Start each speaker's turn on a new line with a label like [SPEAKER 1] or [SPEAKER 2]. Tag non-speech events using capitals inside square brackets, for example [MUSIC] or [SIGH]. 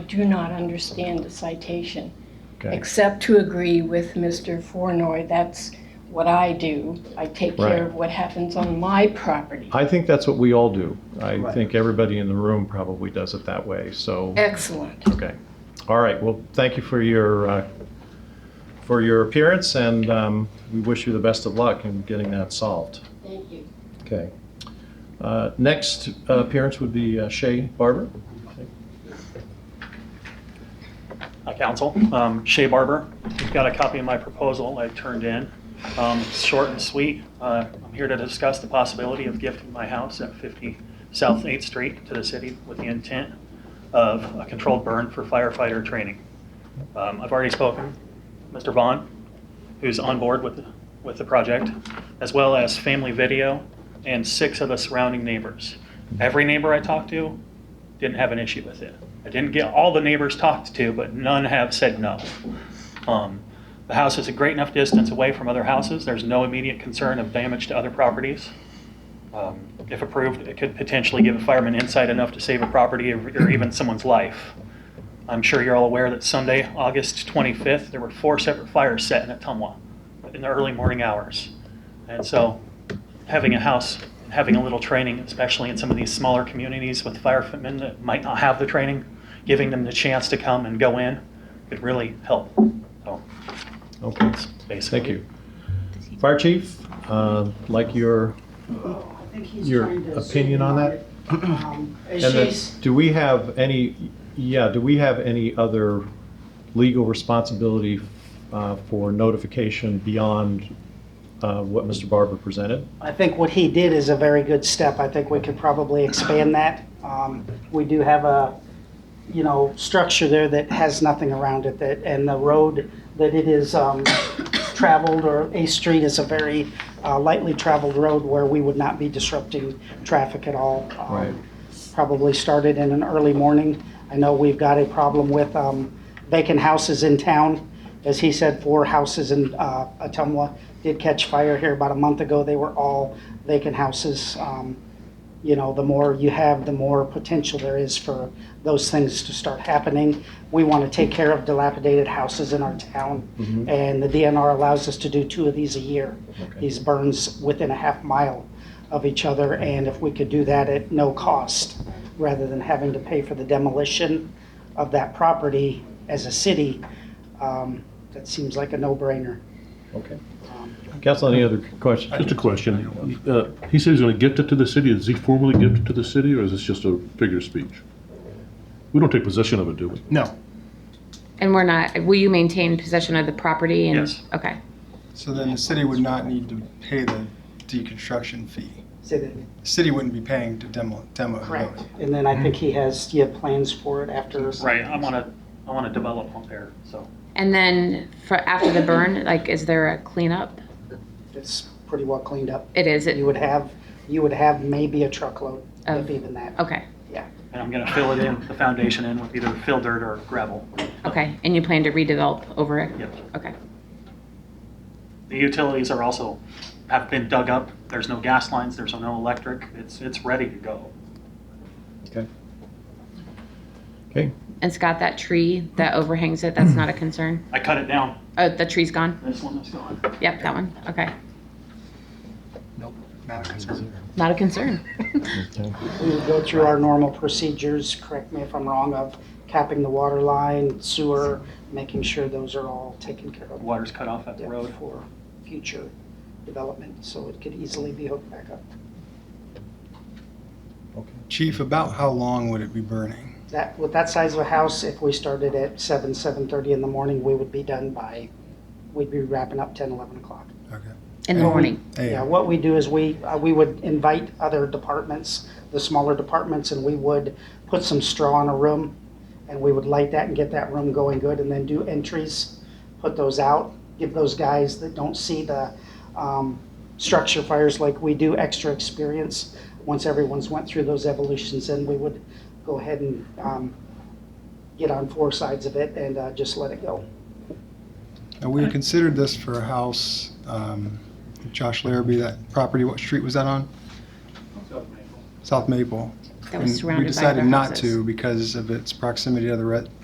[SPEAKER 1] do not understand the citation,
[SPEAKER 2] Okay,
[SPEAKER 1] except to agree with Mr. Fornoy. That's what I do. I take
[SPEAKER 2] Right.
[SPEAKER 1] care of what happens on my property.
[SPEAKER 2] I think that's what we all do. I
[SPEAKER 3] Right.
[SPEAKER 2] think everybody in the room probably does it that way, so,
[SPEAKER 1] Excellent.
[SPEAKER 2] okay. All right, well, thank you for your, uh, for your appearance, and um, we wish you the best of luck in getting that solved.
[SPEAKER 1] Thank you.
[SPEAKER 2] Okay. Uh, Next uh, appearance would be uh, Shay Barber.
[SPEAKER 4] uh, council. Um, Shea Barber, you've got a copy of my proposal I turned in. Um, it's Short and sweet. Uh, I'm here to discuss the possibility of gifting my house at 50 South 8th Street to the city with the intent of a controlled burn for firefighter training. Um, I've already spoken, Mr. Vaughn, who's on board with, with the project, as well as Family Video and six of the surrounding neighbors. Every neighbor I talked to didn't have an issue with it. I didn't get all the neighbors talked to, but none have said no. Um, The house is a great enough distance away from other houses. There's no immediate concern of damage to other properties. Um, If approved, it could potentially give a fireman insight enough to save a property or or even someone's life. I'm sure you're all aware that Sunday, August 25th, there were four separate fires set in Atumwa in the early morning hours. And so having a house, having a little training, especially in some of these smaller communities with firemen that might not have the training, giving them the chance to come and go in could really help. So
[SPEAKER 2] Okay,
[SPEAKER 4] that's basically.
[SPEAKER 2] thank you. Fire Chief, uh, like your,
[SPEAKER 3] I think he's
[SPEAKER 2] Your
[SPEAKER 3] trying to
[SPEAKER 2] opinion on that?
[SPEAKER 3] signal it, um,
[SPEAKER 2] [CLEARS THROAT] and
[SPEAKER 3] As she's,
[SPEAKER 2] the- do we have any, yeah, do we have any other legal responsibility uh, for notification beyond uh, what Mr. Barber presented?
[SPEAKER 3] I think what he did is a very good step. I think we could probably expand that. Um, We do have a, you know, structure there that has nothing around it that, and the road that it is um, traveled or a street is a very uh, lightly traveled road where we would not be disrupting traffic at all. Um,
[SPEAKER 2] Right.
[SPEAKER 3] Probably started in an early morning. I know we've got a problem with um, vacant houses in town. As he said, four houses in uh, Atumwa did catch fire here about a month ago. They were all vacant houses. Um, you know, the more you have, the more potential there is for those things to start happening. We want to take care of dilapidated houses in our town, and the DNR allows us to do two of these a year. These burns within a half mile of each other, and if we could do that at no cost, rather than having to pay for the demolition of that property as a city, um, that seems like a no-brainer.
[SPEAKER 2] Okay. Council, any other questions?
[SPEAKER 5] Just a question. Uh, He says he's going to gift it to the city. Does he formally gift it to the city, or is this just a figure of speech? We don't take possession of it, do we?
[SPEAKER 6] No.
[SPEAKER 7] And we're not, will you maintain possession of the property? and-
[SPEAKER 4] Yes.
[SPEAKER 7] Okay.
[SPEAKER 6] So then the city would not need to pay the deconstruction fee.
[SPEAKER 3] Say that
[SPEAKER 6] The city wouldn't be paying to demo, demo the
[SPEAKER 3] correct?
[SPEAKER 6] building.
[SPEAKER 3] And then I think he has, you have plans for it after?
[SPEAKER 4] Right, I want to, I want to develop up there, so.
[SPEAKER 7] And then for, after the burn, like, is there a cleanup?
[SPEAKER 3] It's pretty well cleaned up.
[SPEAKER 7] It is,
[SPEAKER 3] You
[SPEAKER 7] it,
[SPEAKER 3] would have, you would have maybe a truckload, if
[SPEAKER 7] Of-
[SPEAKER 3] even that.
[SPEAKER 7] okay,
[SPEAKER 4] And I'm going to fill it in, the foundation in with either fill dirt or gravel.
[SPEAKER 7] okay. And you plan to redevelop over it?
[SPEAKER 4] Yep.
[SPEAKER 7] Okay.
[SPEAKER 4] The utilities are also, have been dug up. There's no gas lines, there's no electric. It's, it's ready to go.
[SPEAKER 7] And Scott, that tree that overhangs it, that's not a concern?
[SPEAKER 4] I cut it down.
[SPEAKER 7] Oh, the tree's gone?
[SPEAKER 4] This one is gone.
[SPEAKER 7] Yep, that one, okay.
[SPEAKER 6] Nope, not a concern.
[SPEAKER 7] Not a concern.
[SPEAKER 3] We would go through our normal procedures, correct me if I'm wrong, of capping the water line, sewer, making sure those are all taken care of.
[SPEAKER 4] Water's cut off at the
[SPEAKER 3] Yeah,
[SPEAKER 4] road.
[SPEAKER 3] For future development, so it could easily be hooked back up.
[SPEAKER 6] Chief, about how long would it be burning?
[SPEAKER 3] That, with that size of a house, if we started at seven, seven-thirty in the morning, we would be done by, we'd be wrapping up ten, eleven o'clock.
[SPEAKER 6] Okay.
[SPEAKER 7] In the morning.
[SPEAKER 6] Hey,
[SPEAKER 3] Yeah, what we do is we, uh, we would invite other departments, the smaller departments, and we would put some straw in a room, and we would light that and get that room going good, and then do entries, put those out, give those guys that don't see the um, structure fires like we do extra experience. Once everyone's went through those evolutions, then we would go ahead and um, get on four sides of it and uh, just let it go.
[SPEAKER 6] now we had considered this for a house, um, Josh Larrabee, that property, what street was that on? South Maple.
[SPEAKER 7] That was
[SPEAKER 6] And
[SPEAKER 7] surrounded by other
[SPEAKER 6] We decided not
[SPEAKER 7] houses.
[SPEAKER 6] to because of its proximity to the re-